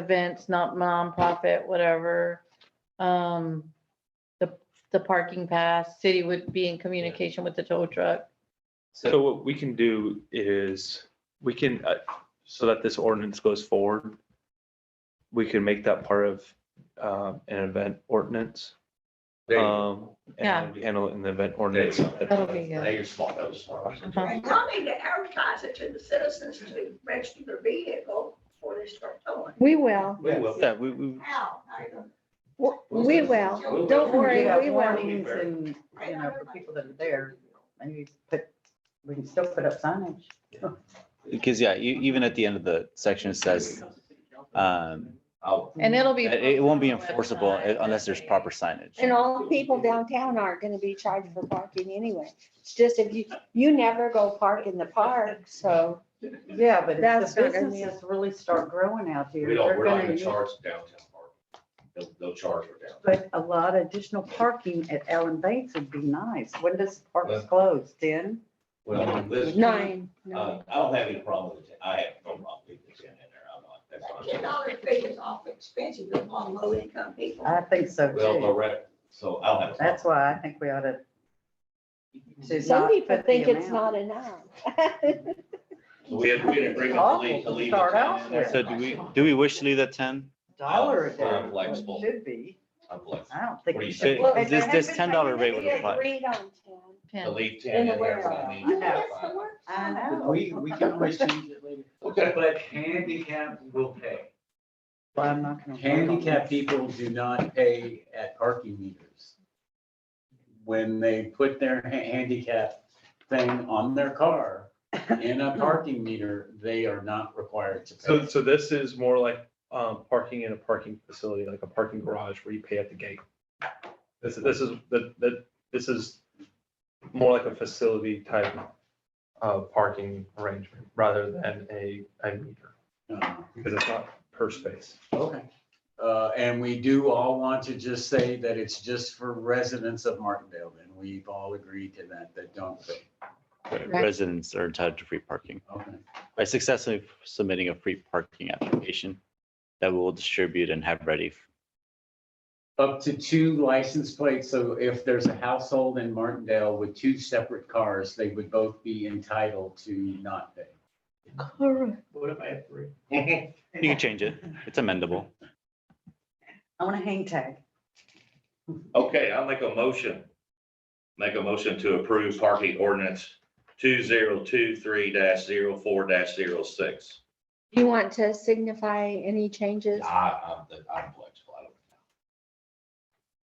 events, not nonprofit, whatever. Um, the, the parking pass, city would be in communication with the tow truck. So what we can do is, we can, uh, so that this ordinance goes forward, we can make that part of um, an event ordinance. There you go. um, Yeah. And we handle it in the event ordinance. That'll be Now good. you're smart, that was smart. Uh-huh. And y'all need to advertise it to the citizens to register their vehicle before they start towing. We will, We will. Yeah, we, we, How? How you gonna- W- we will, don't worry, we will. Warnings and, you know, for people that are there, maybe put, we can still put up signage. Because, yeah, you, even at the end of the section, it says, uh, um, Oh, And it'll be. it, it won't be enforceable unless there's proper signage. And all the people downtown aren't gonna be charged for parking anyway. It's just if you, you never go park in the park, so. Yeah, but if That's the not gonna be- businesses really start growing out here, We don't, they're we're not gonna gonna need charge downtown park. They'll, they'll charge for downtown. But a lot of additional parking at Allen Bates would be nice. When does parks Well- close? Ten? Well, listen, Nine, uh, nine. I don't have any problem with it. I have no problem with it in there. I'm not, that's That ten fine. dollar fee is awful expensive on low income people. I think so Well, too. Lorette, so I don't have. a problem. That's why I think we ought to. to Some not people put the think it's amount. not enough. So we had, we had an agreement to leave, to leave. it Start out in there. So do we, do we wish to leave that ten? Dollar a day. I'm what it flexible. Should be. I'm flexible. I don't think. What do we you should- say? Well, This- this $10 rate would apply. Agreed on ten. To Pin. leave ten in there. for the I know. That's the worst. I know. We, we can always change it later. Okay. But handicap will pay. Well, I'm not gonna. vote on this. Handicap people do not pay at parking meters. When they put their ha- handicap thing on their car in a parking meter, they are not required to so, pay. so this is more like um, parking in a parking facility, like a parking garage where you pay at the gate. This, this is, that, that, this is more like a facility type of parking arrangement rather than a, a meter, Uh, because it's not per space. Okay. Uh, and we do all want to just say that it's just for residents of Martindale, and we've all agreed to that, that don't pay. Residents are entitled to free parking. Okay. By successfully submitting a free parking application that we will distribute and have ready. Up to two license plates, so if there's a household in Martindale with two separate cars, they would both be entitled to not pay. What if I have three? You can change it. It's amendable. I want a hang tag. Okay, I'll make a motion. Make a motion to approve parking ordinance two zero two three 4 6 You want to signify any changes? I, I'm, I'm flexible. I don't-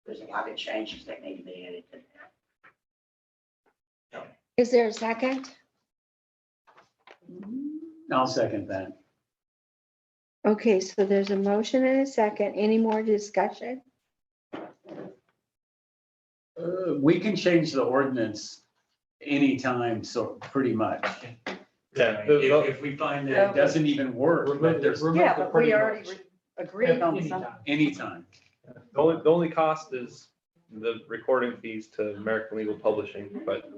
There's a lot of changes that need to be added to that. Is there a second? I'll second that. Okay, so there's a motion and a second. Any more discussion? Uh, we can change the ordinance anytime, so pretty much. Yeah. If, if we find that it doesn't even work, but there's Yeah, but we already re- agreed on something. anytime. The only, the only cost is the recording fees to American Legal Publishing, but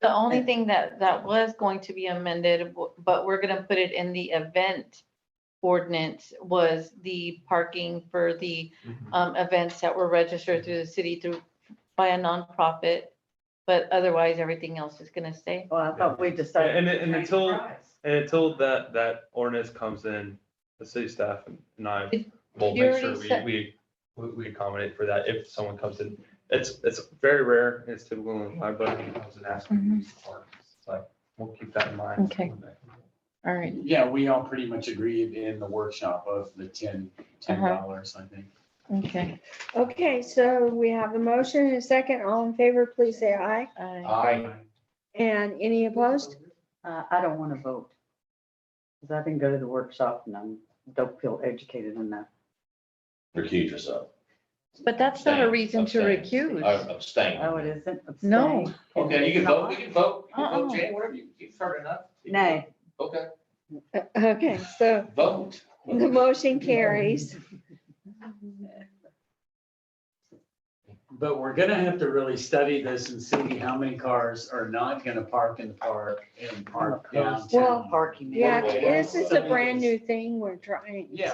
The only thing that, that was going to be amended, but we're gonna put it in the event ordinance, was the parking for the um, events that were registered through the city through, by a nonprofit. But otherwise, everything else is gonna stay. Well, I thought we decided. And- and until- and until that, that ordinance comes in, the city staff and I will You make already sure we, said- we, we- we accommodate for that if someone comes in. It's, it's very rare, it's typical in liability, comes and asks. me to use the park. It's like, we'll keep that in mind. Okay. All right. Yeah, we all pretty much agreed in the workshop of the ten, ten Uh-huh. dollars, I think. Okay. Okay, so we have a motion and a second. All in favor, please say aye. I- I, And any opposed? Uh, I don't want to vote. Because I didn't go to the workshop and I don't feel educated enough. recuse yourself. But that's not a Abstain, reason to abstain. recuse. I abstain. Oh, it isn't? No. Abstain. Okay, you can vote, we can vote, you can Oh. Uh-uh. vote, Jan, whatever you, you've heard enough. Nay. Okay, Uh, Okay, so vote. the motion carries. But we're gonna have to really study this and see how many cars are not gonna park in the park and park Well, downtown. Parking. Yeah, Well, this is a something brand is- new thing we're trying. Yeah,